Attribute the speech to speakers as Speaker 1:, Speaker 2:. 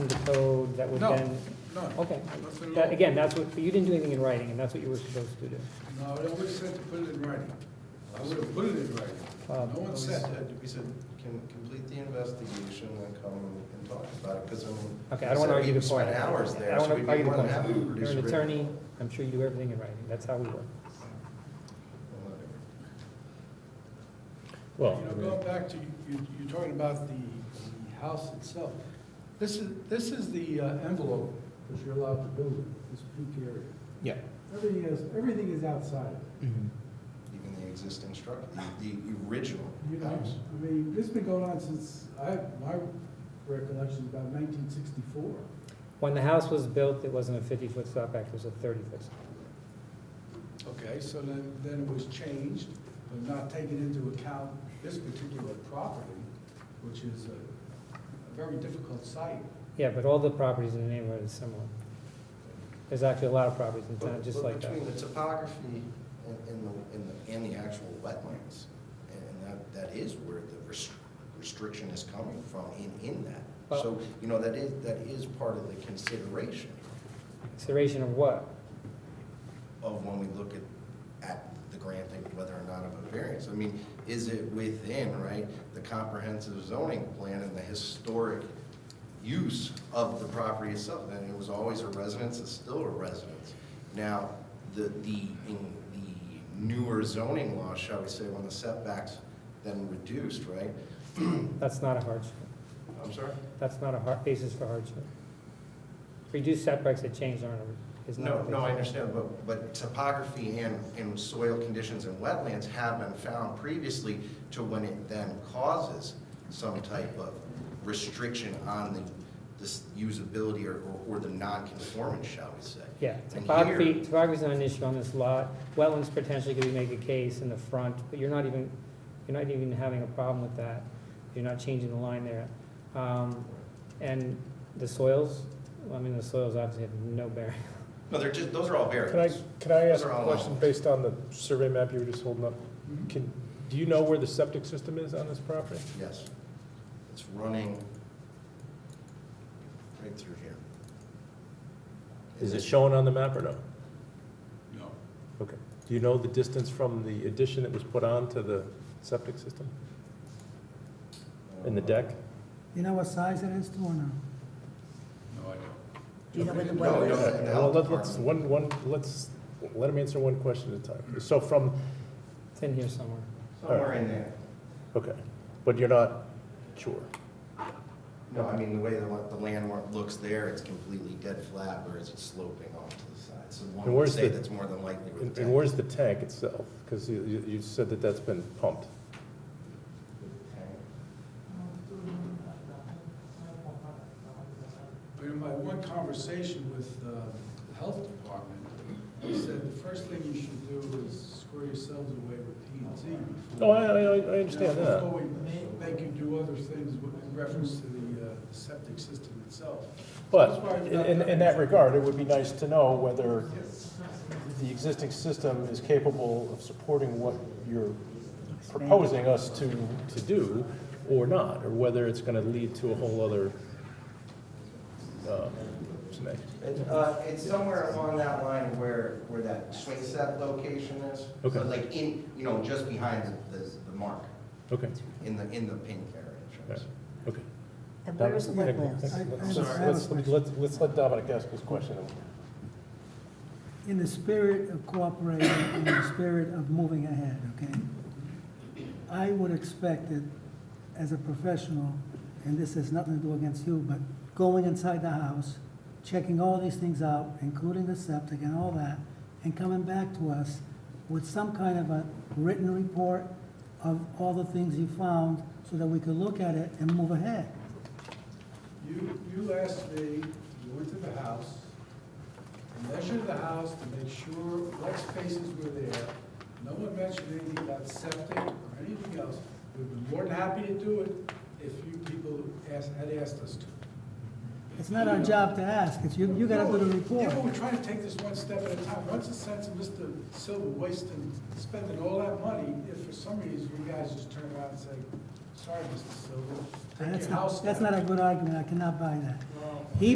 Speaker 1: the code that would
Speaker 2: No,
Speaker 1: then?
Speaker 2: No,
Speaker 1: Okay.
Speaker 2: nothing
Speaker 1: That-
Speaker 2: at all.
Speaker 1: Again, that's what, you didn't do anything in writing, and that's what you were supposed to do.
Speaker 2: No, I would have said to put it in writing. I would have put it in writing.
Speaker 1: Uh,
Speaker 2: No one
Speaker 3: We
Speaker 2: said that.
Speaker 3: said, we said, can complete the investigation and come and talk about it, because I mean.
Speaker 1: Okay, I don't want to argue the point.
Speaker 3: Spent hours
Speaker 1: I
Speaker 3: there,
Speaker 1: don't
Speaker 3: so
Speaker 1: want
Speaker 3: we'd
Speaker 1: to
Speaker 3: be
Speaker 1: argue the
Speaker 3: more than
Speaker 1: point.
Speaker 3: happy to
Speaker 1: You're
Speaker 3: produce
Speaker 1: an
Speaker 3: a written-
Speaker 1: attorney, I'm sure you do everything in writing, that's how we work.
Speaker 4: Well,
Speaker 2: You know, going back to, you, you're talking about the, the house itself. This is, this is the uh, envelope that you're allowed to build in, this peak area.
Speaker 4: yeah.
Speaker 2: Everything is, everything is outside.
Speaker 3: Even the existing structure, the, the original
Speaker 5: You know,
Speaker 3: house.
Speaker 5: I mean, this has been going on since, I, my recollection is about nineteen sixty-four.
Speaker 1: When the house was built, it wasn't a 50-foot setback, it was a 30-foot.
Speaker 2: Okay, so then, then it was changed, but not taking into account this particular property, which is a a very difficult site.
Speaker 1: Yeah, but all the properties in the neighborhood is similar. There's actually a lot of properties in town
Speaker 3: But-
Speaker 1: just
Speaker 3: but
Speaker 1: like that.
Speaker 3: Between the topography and, and the, and the, and the actual wetlands, and that, that is where the rest- restriction is coming from in, in that.
Speaker 1: Well-
Speaker 3: So, you know, that is, that is part of the consideration
Speaker 1: Consideration of what?
Speaker 3: of when we look at, at the granting, whether or not of a variance. I mean, is it within, right, the comprehensive zoning plan and the historic use of the property itself? And it was always a residence, it's still a residence. Now, the, the, in the newer zoning law, shall we say, when the setbacks then reduced, right?
Speaker 1: That's not a hardship.
Speaker 3: I'm sorry?
Speaker 1: That's not a har- basis for hardship. Reduced setbacks that change aren't, a- is not. a
Speaker 3: No, no, I
Speaker 1: basis.
Speaker 3: understand, but, but topography and, and soil conditions and wetlands have been found previously to when it then causes some type of restriction on the, this usability or, or- or the non-conformance, shall we say.
Speaker 1: Yeah,
Speaker 3: And
Speaker 1: topography,
Speaker 3: here-
Speaker 1: topography's not an issue on this lot. Wetlands potentially could be make a case in the front, but you're not even, you're not even having a problem with that. You're not changing the line there. Um, and the soils, I mean, the soils obviously have no bearing.
Speaker 3: No, they're just, those are all
Speaker 4: Can I,
Speaker 3: variables.
Speaker 4: can I
Speaker 3: Those
Speaker 4: ask
Speaker 3: are
Speaker 4: a
Speaker 3: all Mm-hmm.
Speaker 4: question
Speaker 3: allowed.
Speaker 4: based on the survey map you were just holding up? Can, do you know where the septic system is on this property?
Speaker 3: Yes. It's running right through here.
Speaker 4: Is it shown on the map or no?
Speaker 2: No.
Speaker 4: Okay. Do you know the distance from the addition that was put on to the septic system in the deck?
Speaker 6: You know what size it is, too, or no?
Speaker 2: No, I don't.
Speaker 6: Do you know where the
Speaker 3: No,
Speaker 6: well
Speaker 3: we
Speaker 6: is?
Speaker 3: don't have the
Speaker 4: Well,
Speaker 3: health
Speaker 4: let- let's,
Speaker 3: department.
Speaker 4: one, one, let's, let him answer one question at a time. So from,
Speaker 1: It's in here somewhere.
Speaker 3: Somewhere in there.
Speaker 4: okay, but you're not sure?
Speaker 3: No, I mean, the way the, the landmark looks there, it's completely dead flat, whereas it's sloping off to the side. So one
Speaker 4: And
Speaker 3: would
Speaker 4: where's
Speaker 3: say
Speaker 4: the-
Speaker 3: that's more than likely where
Speaker 4: And
Speaker 3: the
Speaker 4: and
Speaker 3: tank.
Speaker 4: where's the tank itself? Because you, you- you said that that's been pumped.
Speaker 2: But in my one conversation with uh, the health department, they said the first thing you should do is square yourselves away with P and Z.
Speaker 4: No, Oh, I, I, I understand that.
Speaker 2: Before we ma- make you do other things with in reference to the uh, septic system itself.
Speaker 4: But in, in- in that regard, it would be nice to know whether the existing system is capable of supporting what you're proposing us to, to do or not, or whether it's gonna lead to a whole other, uh, snag.
Speaker 3: It, uh, it's somewhere along that line where, where that swing set location is. So,
Speaker 4: Okay.
Speaker 3: Like in, you know, just behind the, the, the mark,
Speaker 4: Okay,
Speaker 3: in the, in the pink area.
Speaker 4: all right, okay.
Speaker 6: And where is the
Speaker 4: Dominic,
Speaker 6: wetlands?
Speaker 4: let's-
Speaker 6: I- I
Speaker 4: Let's,
Speaker 6: have a
Speaker 4: let's, let's- let's let Dominic ask his question.
Speaker 6: In the spirit of cooperating, in the spirit of moving ahead, okay? I would expect that, as a professional, and this has nothing to do against you, but going inside the house, checking all these things out, including the septic and all that, and coming back to us with some kind of a written report of all the things you found, so that we could look at it and move ahead.
Speaker 2: You, you asked me, you went to the house, you measured the house to make sure what spaces were there. No one mentioned anything about septic or anything else. We'd be more than happy to do it if you people asked, had asked us to.
Speaker 6: It's not our job to ask, it's you, you gotta do the report.
Speaker 2: Yeah, but we're trying to take this one step at a time. What's the sense of Mr. Silver wasting, spending all that money if for some reason you guys just turn around and say, sorry, Mr. Silver, take
Speaker 6: That's
Speaker 2: your
Speaker 6: not-
Speaker 2: house
Speaker 6: That's
Speaker 2: down."
Speaker 6: not a good argument, I cannot buy that.